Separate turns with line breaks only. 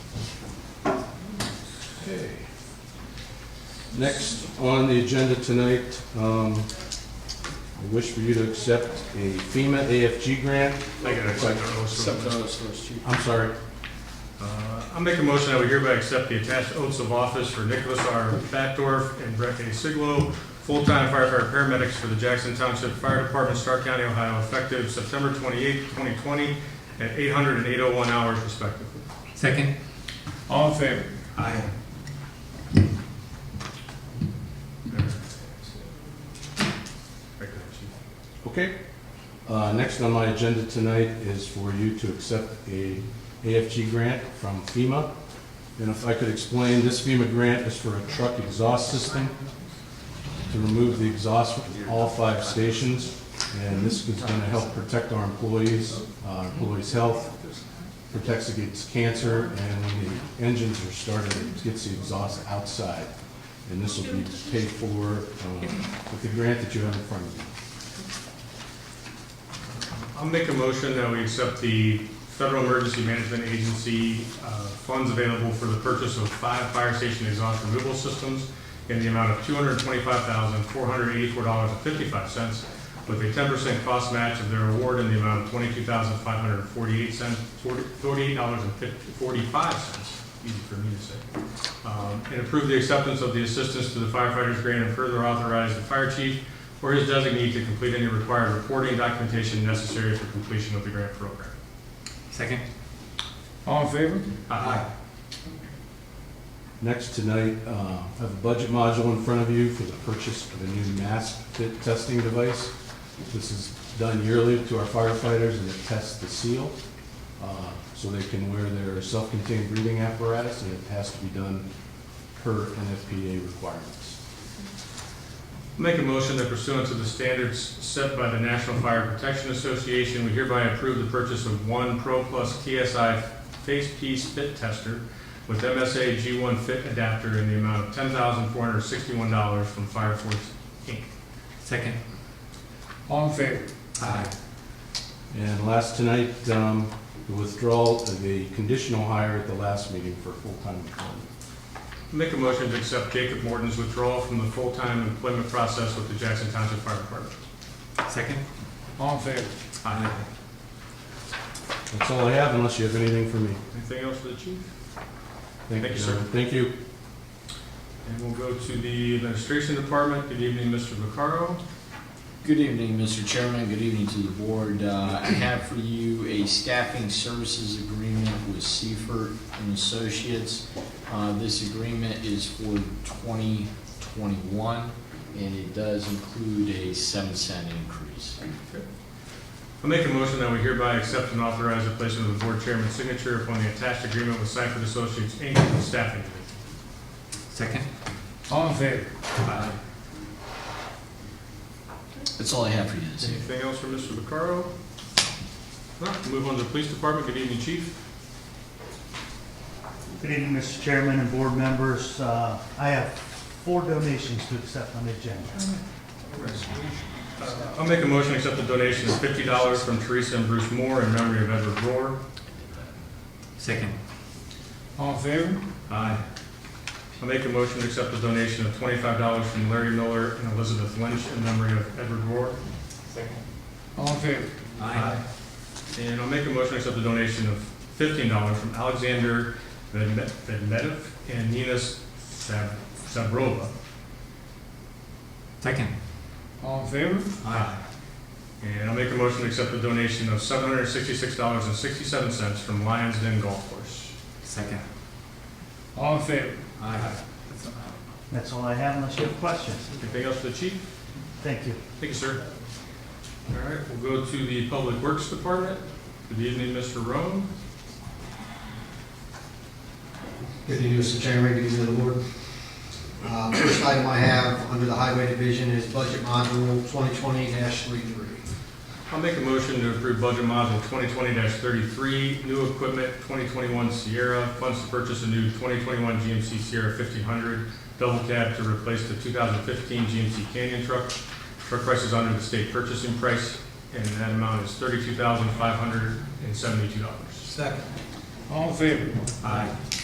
Okay. Next on the agenda tonight, um, I wish for you to accept a FEMA AFG grant.
I gotta accept that
Accept
oath.
those first two.
I'm sorry,
Uh, I'll make a motion that we hereby accept the attached oaths of office for Nicholas R. Batdorf and Brett A. Siglo, full-time firefighter paramedics for the Jackson Township Fire Department, Stark County, Ohio, effective September 28, 2020, at 800 and 801 hours respectively.
Second,
All in favor?
Aye.
okay. Uh, next on my agenda tonight is for you to accept a AFG grant from FEMA. And if I could explain, this FEMA grant is for a truck exhaust system to remove the exhaust from all five stations. And this is gonna help protect our employees, uh, employees' health, protects against cancer, and when the engines are started, it gets the exhaust outside. And this will be paid for um, with the grant that you have in front of you.
I'll make a motion that we accept the Federal Emergency Management Agency uh, funds available for the purchase of five fire station exhaust removal systems in the amount of two hundred twenty-five thousand, four hundred eighty-four dollars and fifty-five cents with a ten percent cost match of their award in the amount of twenty-two thousand, five hundred forty-eight cents, forty-eight dollars and forty-five cents. Easy for me to say. Um, And approve the acceptance of the assistance to the firefighters grant and further authorize the fire chief or his designee to complete any required reporting documentation necessary for completion of the grant program.
second,
All in favor?
Aye.
Next tonight, uh, I have a budget module in front of you for the purchase of a new mask fit testing device. This is done yearly to our firefighters and it tests the seal, uh, so they can wear their self-contained breathing apparatus and it has to be done per NFPA requirements.
Make a motion that pursuant to the standards set by the National Fire Protection Association, we hereby approve the purchase of one Pro Plus TSI face piece fit tester with MSA G1 fit adapter in the amount of ten thousand four hundred sixty-one dollars from Fire Force Inc.
second.
All in favor?
Aye.
And last tonight, um, the withdrawal of the conditional hire at the last meeting for full-time employment.
Make a motion to accept Jacob Morton's withdrawal from the full-time employment process with the Jackson Township Fire Department.
Second,
All in favor?
Aye.
That's all I have unless you have anything for me.
Anything else for the chief? Thank you,
John.
sir.
Thank you.
And we'll go to the administration department. Good evening, Mr. Vaccaro.
Good evening, Mr. Chairman. Good evening to the board. Uh, I have for you a staffing services agreement with Seifert and Associates. Uh, This agreement is for 2021, and it does include a 7 cent increase.
I make a motion that we hereby accept and authorize the placement of the board chairman's signature upon the attached agreement with Sanford Associates, Inc., for the staffing. division.
second.
All in favor?
Aye.
That's all I have for you this evening.
Anything else for Mr. Vaccaro? No. Move on to the police department. Good evening, chief.
Good evening, Mr. Chairman and board members. Uh, I have four donations to accept on the agenda.
Uh, I'll make a motion to accept the donation of fifty dollars from Teresa and Bruce Moore in memory of Edward Rohr.
Second,
All in favor?
Aye. I make a motion to accept the donation of twenty-five dollars from Larry Miller and Elizabeth Lynch in memory of Edward Rohr.
All in favor?
aye.
And I'll make a motion to accept the donation of fifteen dollars from Alexander Vedme- Vedmedev and Nina Sab- Sabrova.
Second,
All in favor?
Aye. And I'll make a motion to accept the donation of seven hundred sixty-six dollars and sixty-seven cents from Lions Den Golf Course.
second.
All in favor?
Aye.
That's all I have unless you have questions.
Anything else for the chief?
Thank you.
Thank you, sir. All right, we'll go to the Public Works Department. Good evening, Mr. Roan.
Good evening, Mr. Chairman, good evening, the board. Uh, First item I have under the Highway Division is Budget Module 2020-33.
I'll make a motion to approve budget module twenty twenty thirty-three, new equipment, twenty twenty-one Sierra, funds to purchase a new twenty twenty-one GMC Sierra fifteen hundred, double cab to replace the two thousand fifteen GMC Canyon truck. Truck price is under the state purchasing price, and that amount is thirty-two thousand five hundred and seventy-two dollars.
Second.
All in favor?
Aye.